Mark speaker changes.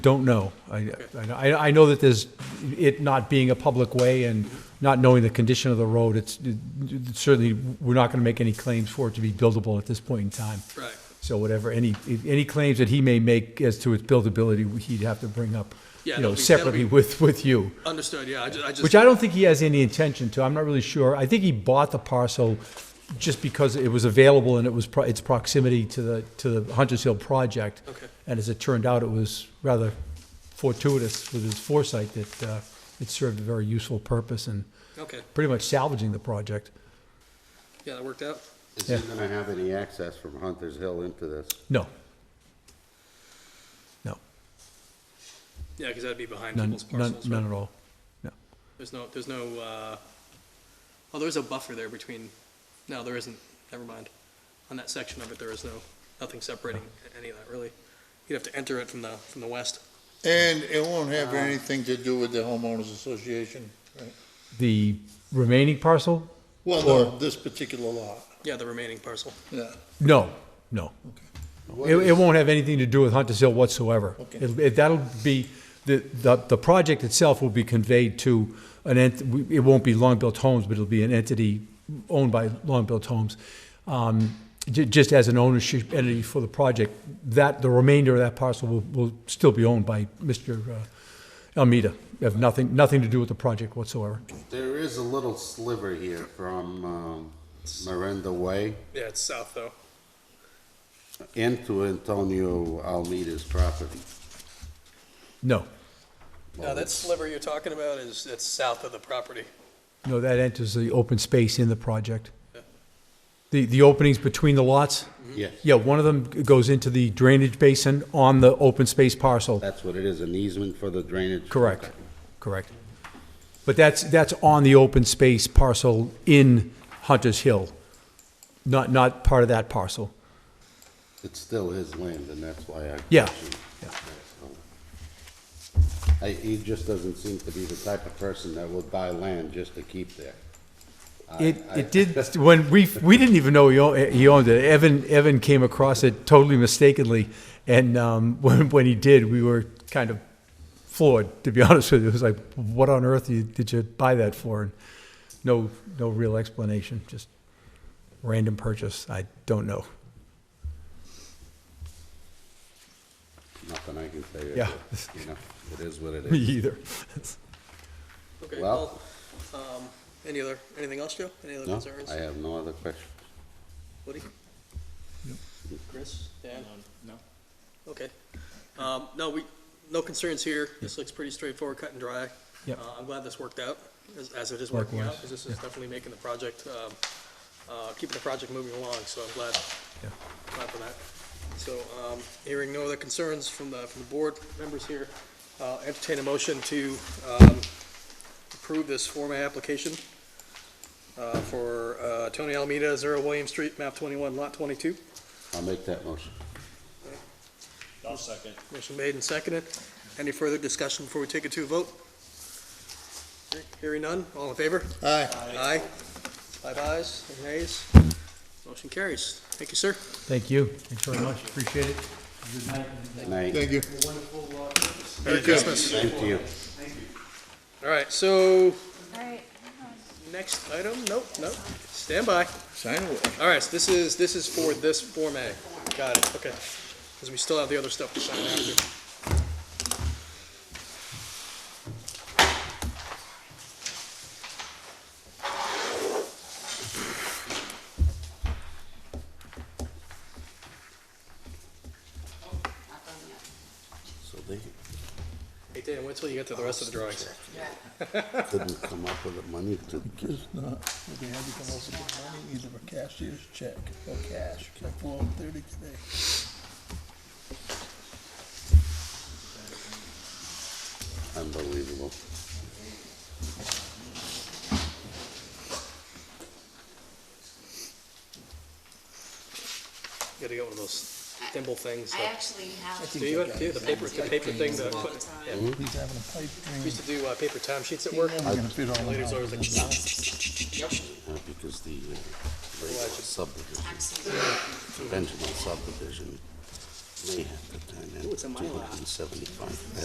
Speaker 1: Don't know. I, I, I know that there's, it not being a public way and not knowing the condition of the road, it's, certainly, we're not gonna make any claims for it to be buildable at this point in time.
Speaker 2: Right.
Speaker 1: So whatever, any, any claims that he may make as to its buildability, he'd have to bring up,
Speaker 2: Yeah,
Speaker 1: you know,
Speaker 2: that'll be- that'll
Speaker 1: separately
Speaker 2: be-
Speaker 1: with, with you.
Speaker 2: Understood, yeah, I ju- I just.
Speaker 1: Which I don't think he has any intention to. I'm not really sure. I think he bought the parcel just because it was available and it was, pro- its proximity to the, to the Hunters Hill project.
Speaker 2: Okay.
Speaker 1: And as it turned out, it was rather fortuitous with his foresight that uh, it served a very useful purpose and
Speaker 2: Okay,
Speaker 1: pretty much salvaging the project.
Speaker 2: yeah, that worked out.
Speaker 3: Is
Speaker 1: Yeah.
Speaker 3: he gonna have any access from Hunter's Hill into this?
Speaker 1: No. No,
Speaker 2: Yeah, because that'd be behind
Speaker 1: none,
Speaker 2: people's
Speaker 1: none,
Speaker 2: parcels,
Speaker 1: none
Speaker 2: right?
Speaker 1: at all. No.
Speaker 2: There's no, there's no, uh, oh, there's a buffer there between, no, there isn't, never mind. On that section of it, there is no, nothing separating any of that, really. You'd have to enter it from the, from the west.
Speaker 4: And it won't have anything to do with the homeowners association? right?
Speaker 1: The remaining parcel?
Speaker 4: Well, no, this particular lot,
Speaker 2: Yeah, the remaining parcel.
Speaker 4: yeah.
Speaker 1: No, no. It, it won't have anything to do with Hunters Hill whatsoever.
Speaker 4: Okay.
Speaker 1: It'll- It, that'll be, the, the, the project itself will be conveyed to an ent, we- it won't be Long-Built Homes, but it'll be an entity owned by Long-Built Homes. Um, ju- just as an ownership entity for the project, that, the remainder of that parcel will, will still be owned by Mr. uh, Almeida. Have nothing, nothing to do with the project whatsoever.
Speaker 3: There is a little sliver here from, um, Miranda Way
Speaker 2: Yeah, it's south, though.
Speaker 3: into Antonio Almeida's property.
Speaker 1: No,
Speaker 3: Oh,
Speaker 2: No, that sliver you're talking about is, it's south of the property.
Speaker 1: no, that enters the open space in the project. The, the openings between the lots?
Speaker 3: Yes,
Speaker 1: Yeah, one of them goes into the drainage basin on the open space parcel.
Speaker 3: that's what it is, an easement for the drainage.
Speaker 1: Correct, correct. But that's, that's on the open space parcel in Hunter's Hill, not, not part of that parcel.
Speaker 3: It's still his land, and that's why I.
Speaker 1: Yeah.
Speaker 3: questioned that, so. I, he just doesn't seem to be the type of person that would buy land just to keep there.
Speaker 1: It, it did, when we, we didn't even know he owned, he owned it. Evan, Evan came across it totally mistakenly, and um, when, when he did, we were kind of floored, to be honest with you. It was like, what on earth you- did you buy that for? And no, no real explanation, just random purchase. I don't know.
Speaker 3: Nothing I can say.
Speaker 1: Yeah.
Speaker 3: You know, it is what it
Speaker 1: Me
Speaker 3: is.
Speaker 1: either.
Speaker 2: Okay, well,
Speaker 3: Well-
Speaker 2: um, any other, anything else, Joe? Any other
Speaker 3: No,
Speaker 2: concerns?
Speaker 3: I have no other questions.
Speaker 2: Woody? Chris? Dan? No. Okay. Um, no, we, no concerns here. This looks pretty straightforward, cut and dry.
Speaker 1: Yep.
Speaker 2: Uh, I'm glad this worked out, as, as it is working out,
Speaker 1: Likewise,
Speaker 2: because this is definitely making the project, um, uh, keeping the project moving along, so I'm glad,
Speaker 1: Yeah.
Speaker 2: glad for that. So, um, hearing no other concerns from the, from the board members here, uh, entertain a motion to, um, approve this Form A application uh, for uh, Tony Alameda, Zero William Street, map 21, lot 22.
Speaker 3: I'll make that motion.
Speaker 5: I'll second.
Speaker 2: Motion made and seconded. Any further discussion before we take it to a vote? Hearing none, all in favor?
Speaker 4: Aye.
Speaker 2: Aye. Five ayes, no nays. Motion carries. Thank you, sir.
Speaker 1: Thank you. Thanks very much. Appreciate it.
Speaker 3: Night.
Speaker 4: Thank you.
Speaker 2: Merry Christmas.
Speaker 3: Thank you.
Speaker 2: All right, so,
Speaker 6: All right.
Speaker 2: next item, nope, nope, stand by.
Speaker 4: Sign away.
Speaker 2: All right, so this is, this is for this Form A. Got it, okay. Because we still have the other stuff to sign after.
Speaker 3: So they
Speaker 2: Hey, Dan, wait till you get to the rest of the drawings.
Speaker 3: couldn't come up with the money to,
Speaker 4: Just not, if they had to come up with money, either a cashier's check or cash, like four thirty today.
Speaker 3: unbelievable.
Speaker 2: You gotta get one of those thimble things.
Speaker 6: I
Speaker 2: that-
Speaker 6: actually have.
Speaker 2: Do you have, do you have the paper, the paper thing that, I put- yeah, we
Speaker 4: He's having a pipe dream.
Speaker 2: used to do, uh, paper time sheets at work?
Speaker 4: He's never gonna fit all the
Speaker 2: Ladies
Speaker 4: money.
Speaker 2: always like,
Speaker 3: Uh, Because the uh, regular subdivision,
Speaker 6: Absolutely.
Speaker 3: conventional subdivision
Speaker 7: may have to turn in
Speaker 3: Ooh, it's a Mylar.
Speaker 7: 275.